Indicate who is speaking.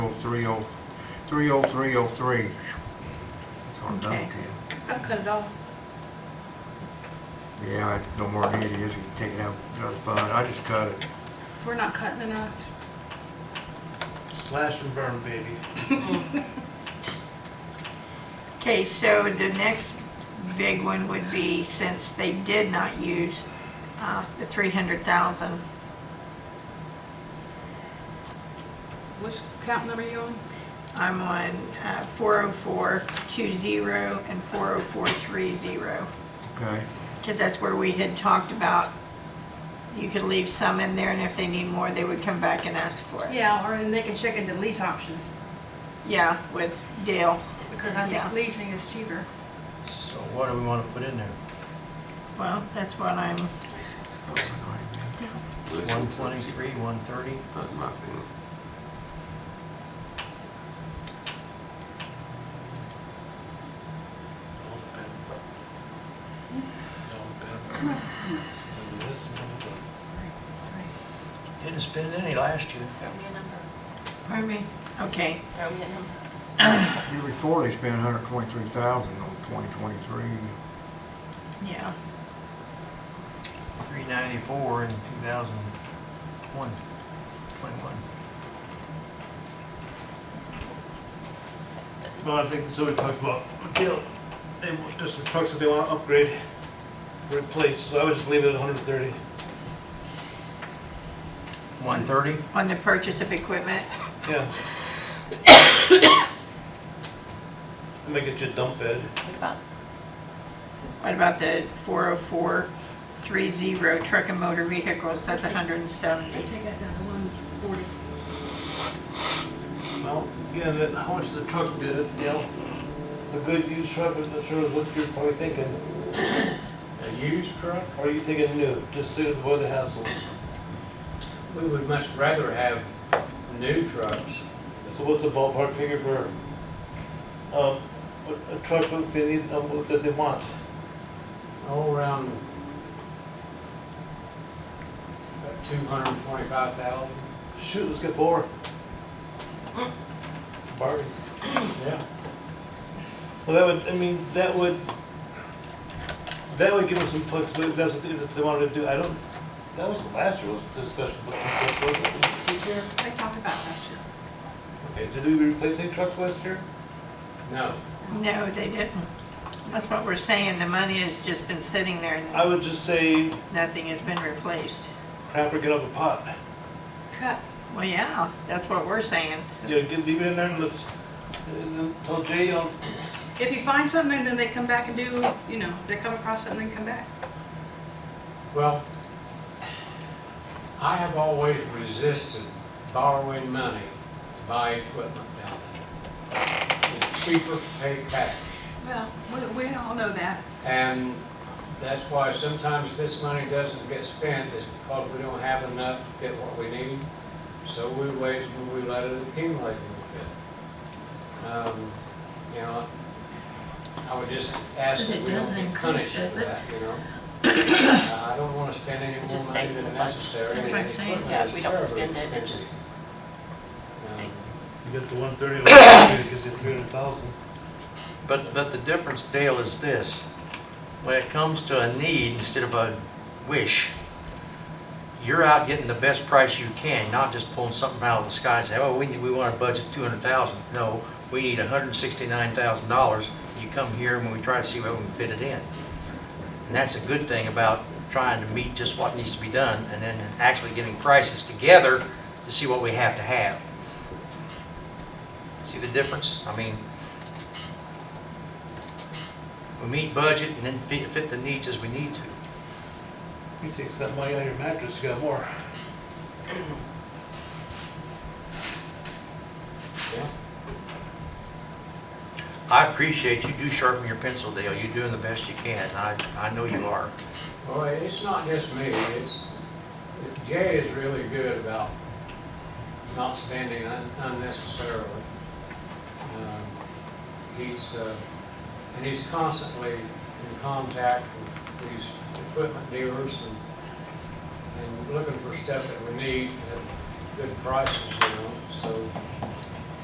Speaker 1: 30303. oh, That's what I'm done
Speaker 2: Okay.
Speaker 1: with
Speaker 3: I cut it off.
Speaker 1: it. Yeah, it's no more than it is, you can take it out, that's fine, I just cut it.
Speaker 3: So we're not cutting enough.
Speaker 4: Slash and burn, baby.
Speaker 2: Okay, so the next big one would be, since they did not use uh, the 300,000,
Speaker 3: Which account number you on?
Speaker 2: I'm on uh, 40420 and 40430.
Speaker 1: Okay,
Speaker 2: Because that's where we had talked about, you could leave some in there, and if they need more, they would come back and ask for it.
Speaker 3: Yeah, or and they can check into lease options,
Speaker 2: Yeah, with Dale.
Speaker 3: because I
Speaker 2: Yeah.
Speaker 3: think leasing is cheaper.
Speaker 4: So what do we wanna put in there?
Speaker 2: Well, that's what I'm,
Speaker 4: One twenty-three, one thirty?
Speaker 5: That might be,
Speaker 4: Didn't spend any last year.
Speaker 6: Throw me a number.
Speaker 2: pardon me? Okay,
Speaker 6: Throw me a number.
Speaker 1: year before they spent hundred twenty-three thousand on twenty twenty-three,
Speaker 2: yeah.
Speaker 4: Three ninety-four in two thousand one, twenty-one.
Speaker 7: Well, I think, so we talked about, Gil, they, want- there's some trucks that they wanna upgrade, replace, so I would just leave it at hundred and thirty.
Speaker 4: One thirty?
Speaker 2: On the purchase of equipment,
Speaker 7: Yeah. Make it your dump bed.
Speaker 6: What about
Speaker 2: what about the 40430 truck and motor vehicles? That's 170.
Speaker 3: take that down to one forty.
Speaker 7: Well, again, that, how much the truck did it, you know? A good used truck, I'm not sure what you're probably thinking,
Speaker 4: A used truck?
Speaker 7: or are you thinking new, just to avoid the hassle?
Speaker 8: We would much rather have new trucks.
Speaker 7: So what's a ballpark figure for, um, a, a truck that they need, um, what- that they want?
Speaker 8: Oh, around about two hundred and twenty-five thousand.
Speaker 7: Shoot, let's get four. Bargain.
Speaker 8: Yeah.
Speaker 7: Well, that would, I mean, that would, that would give them some flexibility, if that's what, they- if they wanted to do, I don't, that was last year, was the discussion, but was it this year?
Speaker 3: They talked about that shit.
Speaker 7: Okay, did we replace any trucks last year?
Speaker 8: No,
Speaker 2: No, they didn't. That's what we're saying, the money has just been sitting there
Speaker 7: I
Speaker 2: and
Speaker 7: would just say,
Speaker 2: nothing has been replaced.
Speaker 7: crap or get up a pot,
Speaker 3: Cut.
Speaker 2: Well, yeah, that's what we're saying.
Speaker 7: you know, get, leave it in there and let's, and then tell Jay, you know,
Speaker 3: If you find something, then they come back and do, you know, they come across something, they come back.
Speaker 8: well, I have always resisted borrowing money to buy equipment down there. It's cheaper to pay cash.
Speaker 3: Well, we, we all know that.
Speaker 8: And that's why sometimes this money doesn't get spent, is because we don't have enough to get what we need. So we wait and we let it accumulate a little bit. Um, You know, I would just ask
Speaker 2: But
Speaker 8: that
Speaker 2: it
Speaker 8: we don't
Speaker 2: doesn't
Speaker 8: get
Speaker 2: increase,
Speaker 8: punished for
Speaker 2: does it?
Speaker 8: that, you know? Uh, I don't want to spend any
Speaker 6: It
Speaker 8: more
Speaker 6: just
Speaker 8: money
Speaker 6: stays in
Speaker 8: than
Speaker 6: the budget.
Speaker 8: necessary.
Speaker 2: That's what I'm saying.
Speaker 8: Equipment
Speaker 6: Yeah,
Speaker 8: is Um,
Speaker 6: if we don't
Speaker 8: terribly
Speaker 6: spend it, it
Speaker 8: expensive.
Speaker 6: just stays.
Speaker 7: you get the one thirty, it gives you three hundred thousand.
Speaker 4: But, but the difference, Dale, is this. When it comes to a need instead of a wish, you're out getting the best price you can, not just pulling something out of the sky and say, oh, we, we want to budget two hundred thousand. No, we need hundred and sixty-nine thousand dollars. You come here and we try to see where we can fit it in. And that's a good thing about trying to meet just what needs to be done and then actually getting prices together to see what we have to have. See the difference? I mean, we meet budget and then fit, fit the needs as we need to.
Speaker 7: You take that money out of your mattress, you got more.
Speaker 4: I appreciate you do sharpen your pencil, Dale. You're doing the best you can. I, I know you are.
Speaker 8: Well, it's not just me, it's, Jay is really good about not spending un- unnecessarily. Um, He's, uh, and he's constantly in contact with these equipment dealers and, and looking for stuff that we need at good prices, you know, so